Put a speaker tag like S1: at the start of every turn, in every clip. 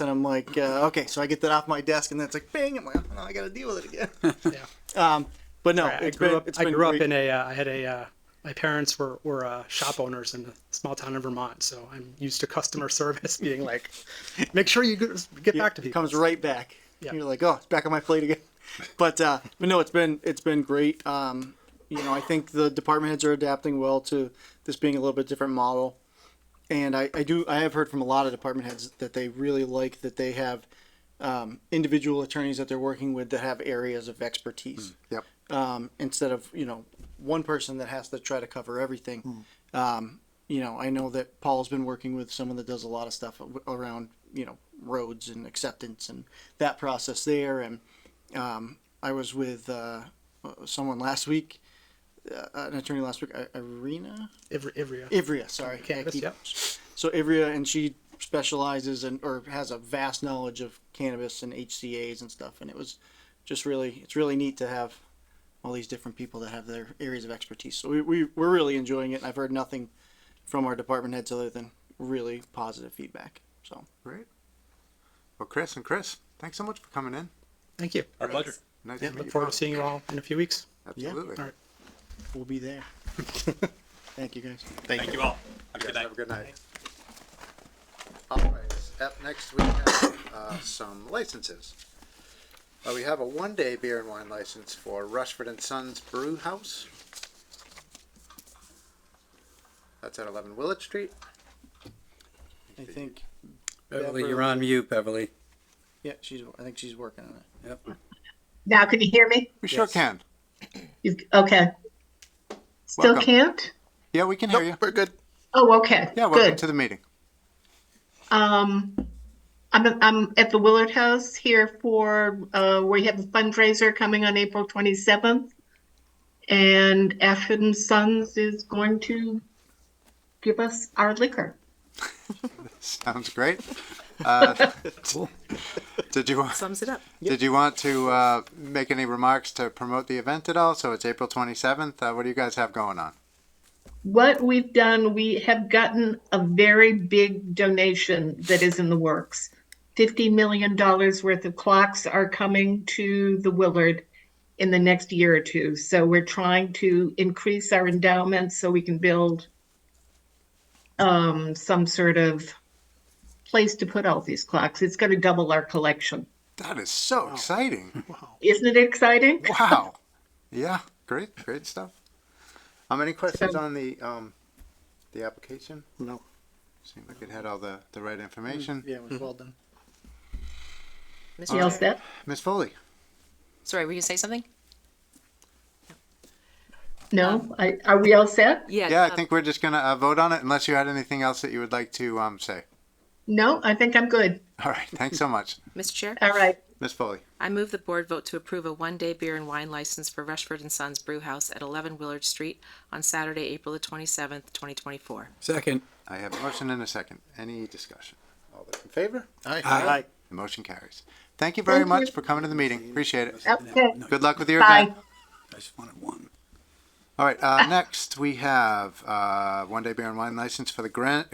S1: and I'm like, uh, okay, so I get that off my desk, and then it's like, bang! I'm like, oh, no, I got to deal with it again.
S2: Yeah.
S1: Um, but no,
S2: I
S1: it's
S2: grew
S1: been-
S2: up.
S1: it's
S2: Oh, I
S1: been
S2: grew up
S1: great.
S2: in a. Uh, I had a. Uh, my parents were were uh, shop owners in a small town in Vermont, so I'm used to customer service being like, make sure you get, get back to
S1: It
S2: people.
S1: comes right back.
S2: Yeah.
S1: You're like, oh, it's back on my plate again. But uh, but no, it's been it's been great. Um, you know, I think the department heads are adapting well to this being a little bit different model. And I, I do I have heard from a lot of department heads that they really like that they have um, individual attorneys that they're working with that have areas of expertise
S3: Yep.
S1: um, instead of you know one person that has to try to cover everything. Um, you know, I know that Paul's been working with someone that does a lot of stuff a- around you know roads and acceptance and that process there. And um, I was with uh, someone last week, uh, an attorney last week, I- Irina
S2: Ivry, Ivry,
S1: Ivria. Sorry, I
S2: Cannabis,
S1: keep-
S2: yep.
S1: So Ivria, and she specializes and or has a vast knowledge of cannabis and HCA's and stuff. And it was just really, it's really neat to have all these different people that have their areas of expertise. So we, we we're really enjoying it. And I've heard nothing from our department heads other than really positive feedback. So
S3: Great. Well, Chris and Chris, thanks so much for coming in.
S2: Thank you.
S4: Our pleasure.
S3: Nice to meet
S2: Look
S3: you.
S2: forward to seeing you all in a few weeks.
S3: Absolutely.
S2: All right.
S1: we'll be there. Thank you guys.
S4: Thank you all. Have a good night.
S3: Have a good night. All right, up next we have uh, some licenses. Uh, We have a one-day beer and wine license for Rushford and Sons Brew House. That's at 11 Willett Street.
S1: I think
S5: Beverly, you're on mute, Beverly.
S1: yeah, she's I think she's working on it.
S5: Yep.
S6: Now, can you hear me?
S3: We sure can.
S6: You, okay. Still
S3: Welcome.
S6: can't?
S3: Yeah, we can hear you.
S1: We're good.
S6: Oh, okay.
S3: Yeah, welcome
S6: Good.
S3: to the meeting.
S6: um, I'm, I'm at the Willard House here for, uh, we have a fundraiser coming on April 27th. And Ashford and Sons is going to give us our liquor.
S3: Sounds great. Uh, Did you,
S7: Sums it up.
S3: did you want to uh, make any remarks to promote the event at all? So it's April 27th. Uh, What do you guys have going on?
S6: what we've done, we have gotten a very big donation that is in the works. $50 million worth of clocks are coming to the Willard in the next year or two. So we're trying to increase our endowment so we can build um, some sort of place to put all these clocks. It's going to double our collection.
S3: That is so exciting.
S6: Isn't it exciting?
S3: Wow. Yeah, great, great stuff. Um, any questions on the, um, the application?
S1: No. Mm,
S3: Seemed like it had all the, the right information.
S1: Yeah, it was well done.
S7: Mr.
S6: You all
S7: Chair.
S6: set?
S3: Ms. Foley?
S7: Sorry, were you gonna say something?
S6: No? I, are we all set?
S3: Yeah,
S7: um,
S3: I think we're just gonna, uh, vote on it unless you had anything else that you would like to, um, say.
S6: No, I think I'm good.
S3: All right, thanks so much.
S7: Mr. Chair,
S6: All right.
S3: Ms. Foley?
S7: I move the board vote to approve a one-day beer and wine license for Rushford and Sons Brew House at 11 Willard Street on Saturday, April the 27th, 2024.
S5: Second.
S3: I have a motion and a second. Any discussion? All those in favor?
S1: All right.
S3: The motion carries. Thank you very
S6: Thank
S3: much
S6: you.
S3: for coming to the meeting. Appreciate it.
S6: Okay.
S3: Good luck with your
S6: Bye.
S3: event.
S5: I just wanted one.
S3: All right, uh, next we have uh, one day beer and wine license for the Gran-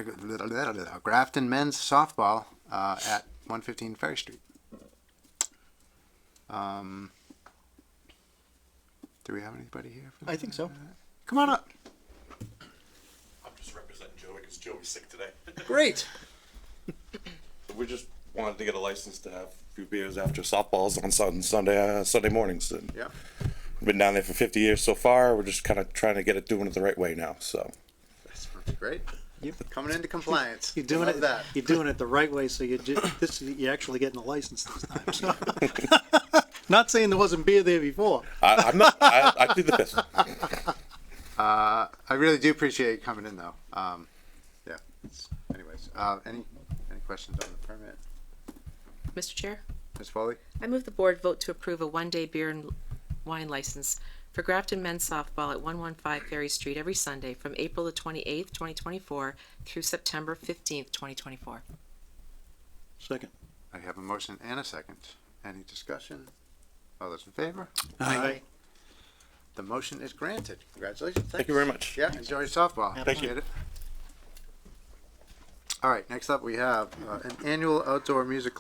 S3: Grafton men's softball uh, at 115 Ferry Street. Um, do we have anybody here? For that?
S1: I think so.
S3: Come on up.
S8: I'm just representing Joey because Joey's sick today.
S3: Great.
S8: we just wanted to get a license to have a few beers after softballs on Sun- Sunday uh, Sunday mornings. And
S3: Yeah.
S8: we've been down there for 50 years so far. We're just kind of trying to get it doing it the right way now. So
S3: That's great. Coming into compliance.
S9: You're doing
S3: Love
S9: it.
S3: That.
S9: You're doing it the right way, so you ju- this you're actually getting a license this time. So.
S1: Not saying there wasn't beer there before.
S8: I, I'm not. I, I plead the fifth.
S3: I really do appreciate you coming in, though. Um, yeah. it's- Anyways, uh, any any questions on the permit,
S7: Mr. Chair,
S3: Ms. Foley?
S7: I move the board vote to approve a one-day beer and wine license for Grafton Men's Softball at 115 Ferry Street every Sunday from April the 28th, 2024 through September 15th, 2024.
S9: Second.
S3: I have a motion and a second. Any discussion? All those in favor?
S5: Aye.
S3: The motion is granted. Congratulations.
S8: Thank you very much.
S3: Yeah, enjoy your softball.
S8: Thank you.
S3: Appreciate it. All right, next up we have uh, an annual outdoor music